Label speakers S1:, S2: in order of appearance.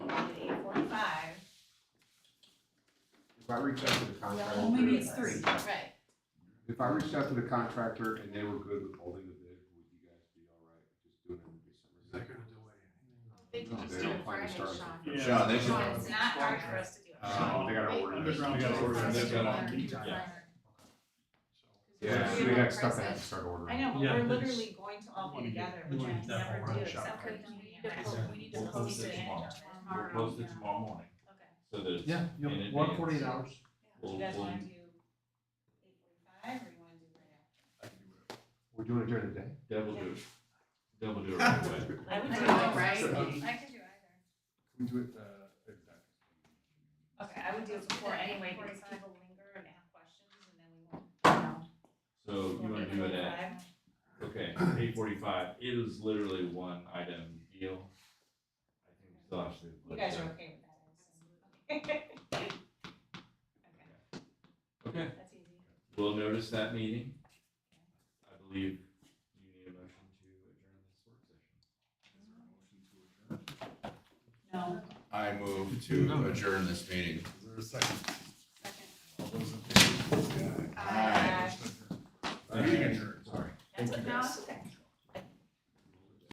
S1: I reached out to the contractor.
S2: Well, maybe it's three.
S3: Right,
S1: If I reached out to the contractor and they were good with holding the bid, would you guys be all right just doing it in December?
S4: They're gonna delay anything.
S3: they can
S1: No,
S3: just
S1: they
S3: do
S1: don't
S3: it
S1: plan to
S3: Friday,
S1: start
S3: Sean.
S5: Yeah.
S6: Sean, they should-
S3: Sean, it's not hard for us to do. it.
S1: Uh, They gotta
S3: They-
S1: order
S3: they
S1: it.
S3: can
S5: Underground
S3: do it
S5: gotta order
S3: Friday.
S6: it. They've got
S5: a lead time.
S3: Friday.
S1: Yeah, so they got stuff they have to start ordering.
S2: I know, but
S4: Yeah,
S2: we're
S4: but
S2: literally going to all be together, which I never do, except for.
S3: Okay, then we need to
S2: oh,
S3: post, we need to
S6: We'll
S3: post
S6: post it
S3: it
S6: tomorrow. We'll
S3: tomorrow.
S6: post it tomorrow morning,
S3: Okay.
S6: so that it's.
S4: Yeah,
S6: in
S4: you'll,
S6: advance.
S4: one forty-eight hours.
S2: Do
S6: We'll-
S2: you guys
S6: we'll-
S2: wanna do eight forty-five, or you wanna do right
S1: We're doing it during the day?
S6: Deb will do it, Deb will do it right away.
S3: I would do it,
S2: now?
S3: right? I can do either.
S4: Can do it, uh,
S2: Okay, I would do it before anyway, because
S3: 8:45.
S2: people linger and have questions, and then we won't, you know.
S6: So you wanna do it at, okay, eight forty-five, it is literally one item deal. I think we still actually.
S2: You guys are okay with that? I assume.
S6: Okay,
S2: That's easy.
S6: we'll notice that meeting. I believe you need a motion to adjourn this work session.
S2: No,
S6: I move
S4: to
S6: adjourn this meeting.
S4: Is there a second?
S2: second.
S4: All those in favor, please, say aye.
S2: Aye.
S4: Meeting adjourned.
S6: Sorry.
S2: That's what, no, it's okay.